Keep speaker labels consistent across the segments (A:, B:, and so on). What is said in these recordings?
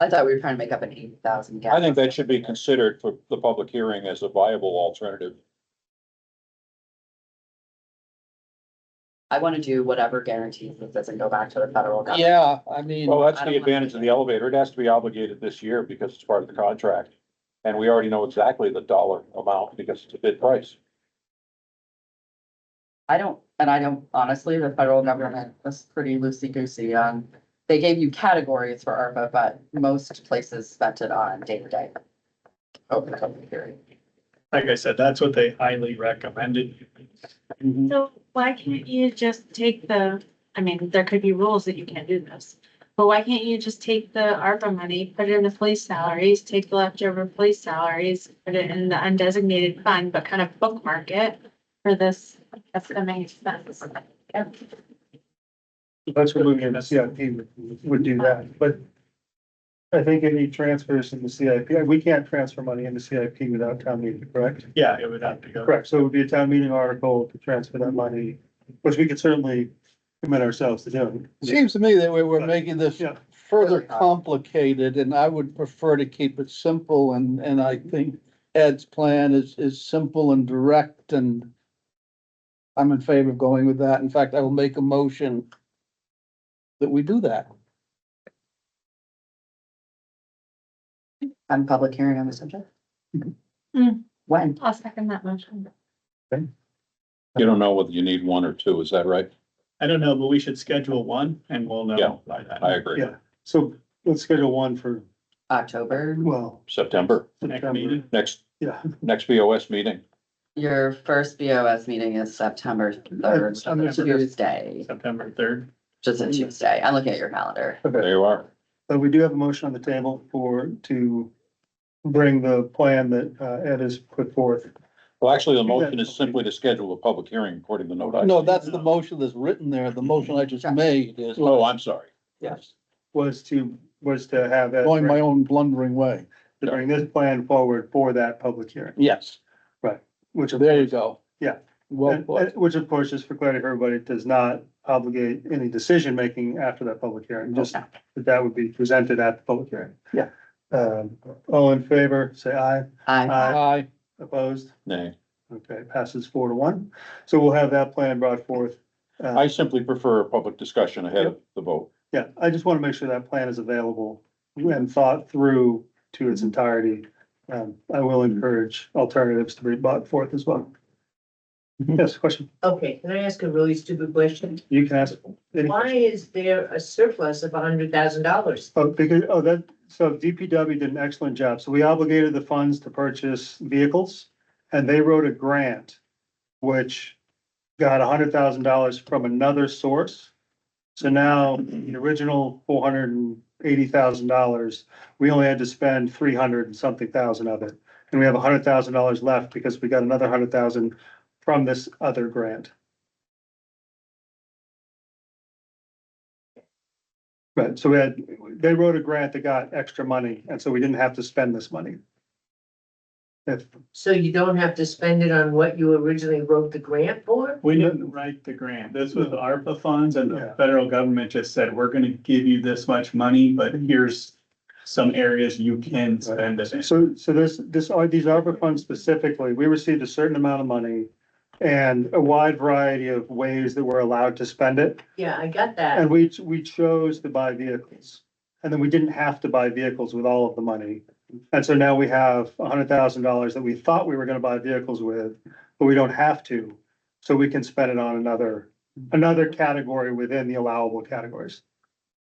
A: I thought we were trying to make up an eighty thousand gap.
B: I think that should be considered for the public hearing as a viable alternative.
A: I want to do whatever guarantees this doesn't go back to the federal government.
C: Yeah, I mean,
B: Well, that's
A: I
B: the
A: don't wanna
B: advantage
A: do
B: of the elevator. It has to be obligated this year because it's part of the contract. And we already know exactly the dollar amount because it's a bid price.
A: I don't, and I don't, honestly, the federal government was pretty loosey goosey on, they gave you categories for ARPA, but most places spent it on day to day. Over the COVID period.
D: Like I said, that's what they highly recommended.
B: Mm-hmm.
E: So why can't you just take the, I mean, there could be rules that you can't do this. But why can't you just take the ARPA money, put it in the police salaries, take the leftover police salaries, put it in the undesignated fund, but kind of bookmark it for this upcoming expense?
F: That's what moving into CIP would, would do that, but I think any transfers in the CIP, we can't transfer money into CIP without town meeting, correct?
D: Yeah, it would have to go.
F: Correct, so it would be a town meeting article to transfer that money, which we could certainly commit ourselves to doing.
C: seems to me that we were making this
F: Yeah.
C: further complicated and I would prefer to keep it simple and, and I think Ed's plan is, is simple and direct and I'm in favor of going with that. In fact, I will make a motion that we do that.
A: And public hearing on the subject?
E: Hmm.
A: When?
E: I'll second that motion.
B: You don't know whether you need one or two, is that right?
D: I don't know, but we should schedule one and we'll
B: Yeah,
D: know by that.
B: I agree.
F: Yeah. So let's schedule one for,
A: October,
F: well,
B: September,
D: Next meeting.
B: next,
F: yeah,
B: next BOS meeting.
A: your first BOS meeting is September third, so
F: I'm
A: it's a
F: gonna-
A: Tuesday,
D: September third.
A: just a Tuesday. I'm looking at your calendar.
F: okay.
B: There you are.
F: But we do have a motion on the table for, to bring the plan that uh, Ed has put forth.
B: Well, actually, the motion is simply to schedule a public hearing according to the note. I-
C: No, that's the motion that's written there. The motion I just made is
B: Oh, I'm sorry.
C: yes,
F: Was to, was to have Ed
C: going my
F: bring-
C: own blundering way.
F: to bring this plan forward for that public hearing,
C: Yes,
F: which. of
C: there you
F: course-
C: go.
F: Yeah.
C: Well,
F: And- and- Which of course, just for clarity for everybody, does not obligate any decision making after that public hearing, just
A: Okay.
F: that that would be presented at the public hearing.
C: Yeah.
F: Um, all in favor, say aye.
A: I,
F: Aye.
C: I,
F: Opposed?
B: Nay.
F: Okay, passes four to one. So we'll have that plan brought forth.
B: I
F: Uh,
B: simply prefer a public discussion ahead of the vote.
F: yeah, I just want to make sure that plan is available and thought through to its entirety. Um, I will encourage alternatives to be brought forth as well. Yes, question?
G: Okay, can I ask a really stupid question?
F: You can ask. any-
G: Why is there a surplus of hundred thousand dollars?
F: Oh, because, oh, that, so DPW did an excellent job. So we obligated the funds to purchase vehicles and they wrote a grant, which got hundred thousand dollars from another source. So now the original four hundred and eighty thousand dollars, we only had to spend three hundred and something thousand of it. And we have hundred thousand dollars left because we got another hundred thousand from this other grant. Right, so we had, they wrote a grant that got extra money, and so we didn't have to spend this money. If,
G: So you don't have to spend it on what you originally wrote the grant for?
D: We didn't write the grant. This was ARPA funds and
F: Yeah.
D: the federal government just said, we're gonna give you this much money, but here's some areas you can spend it in.
F: so, so this, this, are these ARPA funds specifically, we received a certain amount of money and a wide variety of ways that we're allowed to spend it,
G: Yeah, I got that.
F: and we, we chose to buy vehicles. And then we didn't have to buy vehicles with all of the money. And so now we have hundred thousand dollars that we thought we were gonna buy vehicles with, but we don't have to. So we can spend it on another, another category within the allowable categories.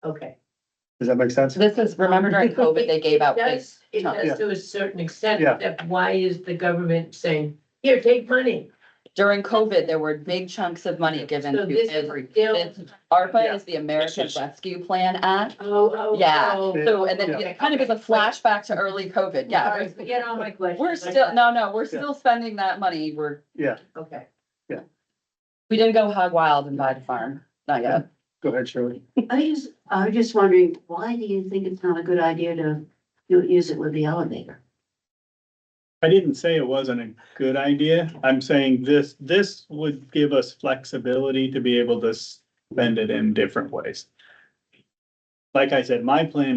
G: Okay.
F: Does that make sense?
A: this is, remember during COVID, they gave out
G: It
A: big
G: does, it
A: chunks.
G: does to a certain extent,
F: Yeah.
G: that why is the government saying, here, take money?
A: During COVID, there were big chunks of money given
G: So
A: to
G: this
A: every.
G: is still,
A: this- ARPA
F: Yeah.
A: is the American
B: This is-
A: Rescue Plan Act.
G: oh, oh.
A: Yeah.
G: oh.
A: So, and then
G: Yeah.
A: it kind of is a flashback to early COVID,
G: All
A: yeah.
G: right, Forget all my questions.
A: We're still, no, no, we're still spending that money. We're,
F: Yeah,
G: Okay.
A: we didn't go hog wild and buy the farm, not yet.
F: go ahead, Shirley.
H: I just, I was just wondering, why do you think it's not a good idea to do- use it with the elevator?
D: I didn't say it wasn't a good idea. I'm saying this, this would give us flexibility to be able to spend it in different ways. Like I said, my plan